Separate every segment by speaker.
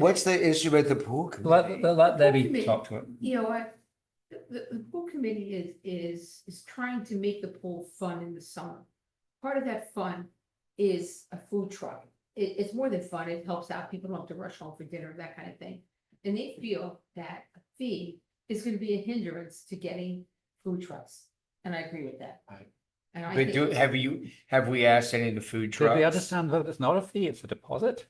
Speaker 1: What's the issue with the pool? committee?
Speaker 2: Let, let Debbie
Speaker 3: Committee.
Speaker 2: talk to it.
Speaker 3: you know, I, the, the, the pool committee is, is, is trying to make the pool fun in the summer. Part of that fun is a food truck. It, it's more than fun, it helps out, people don't have to rush home for dinner, that kind of thing. And they feel that a fee is gonna be a hindrance to getting food trucks, and I agree with that.
Speaker 1: Right.
Speaker 3: And I
Speaker 1: But do,
Speaker 3: think,
Speaker 1: have you, have we asked any of the food
Speaker 2: Did we
Speaker 1: trucks?
Speaker 2: understand that it's not a fee, it's a deposit?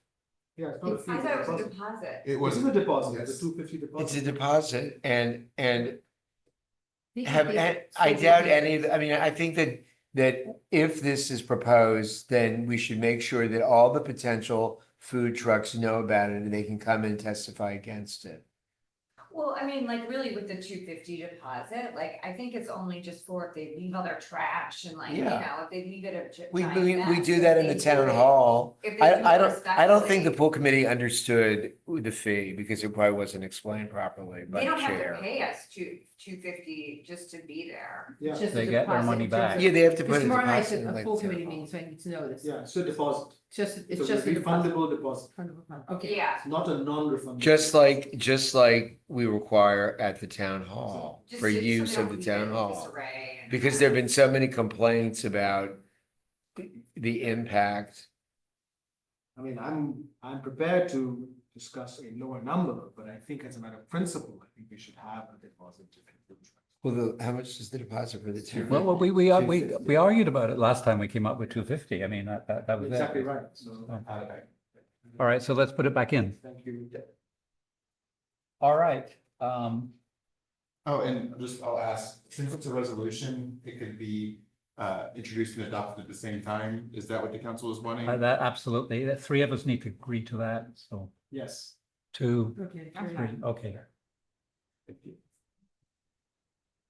Speaker 4: Yeah. it's
Speaker 5: I
Speaker 4: not a fee,
Speaker 5: thought it
Speaker 4: it's
Speaker 5: was a
Speaker 4: a deposit.
Speaker 5: deposit.
Speaker 6: It
Speaker 4: This is
Speaker 6: was,
Speaker 4: a deposit, it's
Speaker 6: Yes.
Speaker 4: a two fifty
Speaker 1: It's a
Speaker 4: deposit.
Speaker 1: deposit and, and
Speaker 3: they can
Speaker 1: have,
Speaker 3: give
Speaker 1: and
Speaker 3: it
Speaker 1: I
Speaker 3: so
Speaker 1: doubt
Speaker 3: many
Speaker 1: any of, the- I mean, I think that, that if this is proposed, then we should make sure that all the potential food trucks know about it and they can come and testify against it.
Speaker 5: Well, I mean, like really with the two fifty deposit, like I think it's only just for if they leave all their trash and like, you
Speaker 1: Yeah.
Speaker 5: know, if they leave it a. gi-
Speaker 1: We,
Speaker 5: giant
Speaker 1: we, we
Speaker 5: mess,
Speaker 1: do
Speaker 5: if
Speaker 1: that in
Speaker 5: they
Speaker 1: the
Speaker 5: do
Speaker 1: town
Speaker 5: it-
Speaker 1: hall.
Speaker 5: if they do it
Speaker 1: I, I don't, I don't think the
Speaker 5: respectfully,
Speaker 1: pool committee understood the fee because it probably wasn't explained properly by
Speaker 5: They
Speaker 1: the
Speaker 5: don't have to
Speaker 1: chair.
Speaker 5: pay us two, two fifty just to be there.
Speaker 4: Yeah,
Speaker 3: Just a
Speaker 2: They get their
Speaker 3: deposit
Speaker 2: money
Speaker 3: in terms
Speaker 2: back.
Speaker 3: of-
Speaker 1: Yeah, they have to
Speaker 3: Because
Speaker 1: put a
Speaker 3: tomorrow night's
Speaker 1: deposit. in,
Speaker 3: a a
Speaker 1: like,
Speaker 3: pool
Speaker 1: the town
Speaker 3: committee
Speaker 1: hall.
Speaker 3: meeting, so I need to know this.
Speaker 4: yeah, it's a deposit.
Speaker 3: Just, it's
Speaker 4: So
Speaker 3: just a
Speaker 4: a
Speaker 3: deposit.
Speaker 4: refundable deposit,
Speaker 3: Refundable, Okay.
Speaker 5: Yeah,
Speaker 4: it's not a non-refundable.
Speaker 1: Just like, just like we require at the town hall
Speaker 5: just.
Speaker 1: for
Speaker 5: so- so they
Speaker 1: use of
Speaker 5: don't
Speaker 1: the
Speaker 5: leave
Speaker 1: town
Speaker 5: it in
Speaker 1: hall.
Speaker 5: disarray and-
Speaker 1: Because there've been so many complaints about the impact.
Speaker 4: I mean, I'm, I'm prepared to discuss a lower number, but I think as a matter of principle, I think we should have a deposit.
Speaker 1: Well, the- how much is the deposit for the town?
Speaker 2: Well, well, we, we, are- we,
Speaker 4: 250.
Speaker 2: we argued about it last time we came up with two fifty. I mean, that, that, that was
Speaker 4: Exactly
Speaker 2: it.
Speaker 4: right, so.
Speaker 2: Oh.
Speaker 4: I-
Speaker 2: All right, so let's put it back in.
Speaker 4: Thank you.
Speaker 2: All right, um,
Speaker 6: oh, and just, I'll ask, since it's a resolution, it could be uh introduced and adopted at the same time, is that what the council is wanting?
Speaker 2: uh, that absolutely, the three of us need to agree to that, so
Speaker 4: Yes.
Speaker 2: two,
Speaker 3: Okay.
Speaker 5: That's
Speaker 2: three,
Speaker 5: fine.
Speaker 2: okay.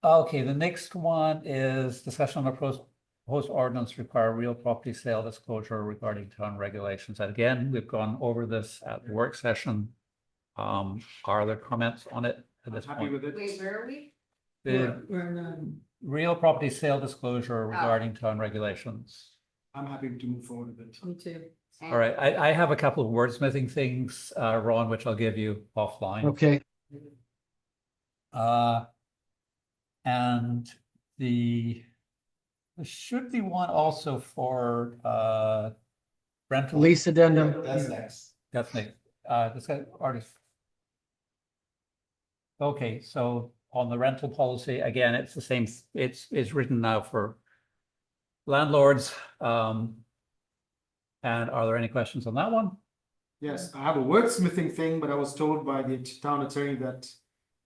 Speaker 2: Okay, the next one is discussion on the pros- proposed ordinance require real property sale disclosure regarding town regulations. And again, we've gone over this at the work session. Um, are there comments on it at
Speaker 4: I'm
Speaker 2: this
Speaker 4: happy
Speaker 2: point?
Speaker 4: with it.
Speaker 5: Wait, where are we?
Speaker 2: The real property sale disclosure regarding town regulations.
Speaker 4: I'm happy to move forward with it.
Speaker 3: um, Me too.
Speaker 2: All right, I, I have a couple of wordsmithing things, uh, Ron, which I'll give you offline.
Speaker 7: Okay,
Speaker 2: Uh, and the, there should be one also for, uh, rental.
Speaker 7: lease addendum.
Speaker 4: next.
Speaker 2: That's next, uh, this guy, artist. Okay, so on the rental policy, again, it's the same, it's, it's written now for landlords, um. And are there any questions on that one?
Speaker 4: Yes, I have a wordsmithing thing, but I was told by the town attorney that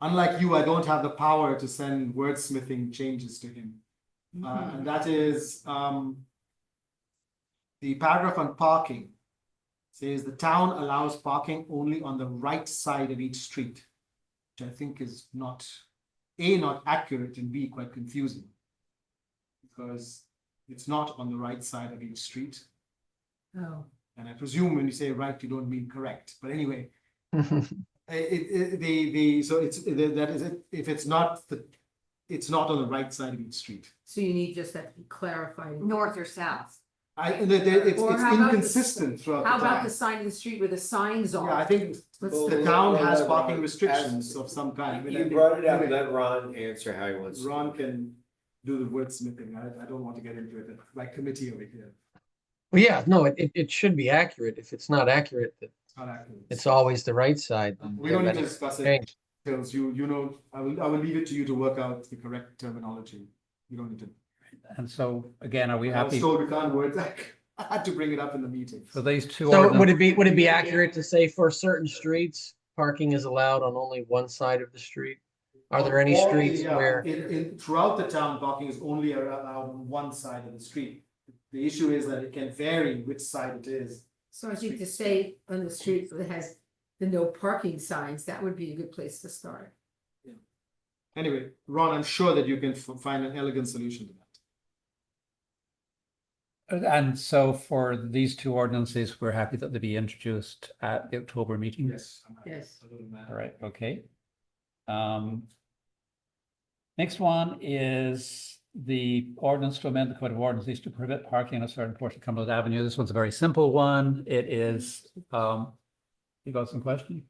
Speaker 4: unlike you, I don't have the power to send wordsmithing changes to him. Uh,
Speaker 3: Hmm.
Speaker 4: and that is, um, the paragraph on parking says the town allows parking only on the right side of each street, which I think is not, A, not accurate and B, quite confusing. Because it's not on the right side of each street.
Speaker 3: Oh,
Speaker 4: And I presume when you say right, you don't mean correct, but anyway, i- Uh, it, it, the, the, so it's, the- that is, it. if it's not the, it's not on the right side of each street.
Speaker 3: so you need just that clarified.
Speaker 5: North or south?
Speaker 4: I, the, the, it's,
Speaker 3: Or
Speaker 4: it's
Speaker 3: how about the-
Speaker 4: inconsistent throughout
Speaker 3: How
Speaker 4: the
Speaker 3: about the
Speaker 4: town.
Speaker 3: sign in the street where the signs
Speaker 4: Yeah, I
Speaker 3: are?
Speaker 4: think
Speaker 3: Let's-
Speaker 4: the town has parking restrictions of some kind. but I think- anyway,
Speaker 1: let Ron answer how he wants.
Speaker 4: Ron can do the wordsmithing, I, I don't want to get into it, by committee over here,
Speaker 7: Well, yeah, no, it, it, it should be accurate. If it's not accurate, that
Speaker 4: it's not accurate.
Speaker 7: it's always the right side. then
Speaker 4: We don't need
Speaker 7: that's
Speaker 4: to discuss it,
Speaker 7: changed.
Speaker 4: because you, you know, I will, I will leave it to you to work out the correct terminology, you don't need to.
Speaker 2: And so, again, are we
Speaker 4: I was
Speaker 2: happy
Speaker 4: told we can't word that. I had to bring it up in the meeting.
Speaker 2: for these two?
Speaker 7: So would
Speaker 2: ordinance-
Speaker 7: it be, would it be accurate to say for certain streets, parking is allowed on only one side of the street? Are there any
Speaker 4: Or-
Speaker 7: streets
Speaker 4: yeah,
Speaker 7: where,
Speaker 4: In, in, throughout the town, parking is only ar- allowed on one side of the street. The issue is that it can vary which side it is.
Speaker 3: So I think to say on the street that has the no parking signs, that would be a good place to start.
Speaker 4: Anyway, Ron, I'm sure that you can f- find an elegant solution to that.
Speaker 2: And so for these two ordinances, we're happy that they be introduced at the October meeting?
Speaker 4: Yes.
Speaker 3: Yes.
Speaker 2: All right, okay. Um. Next one is the ordinance to amend the code of ordinances to prohibit parking on a certain portion of Cumberland Avenue. This one's a very simple one. It is, um. You got some questions?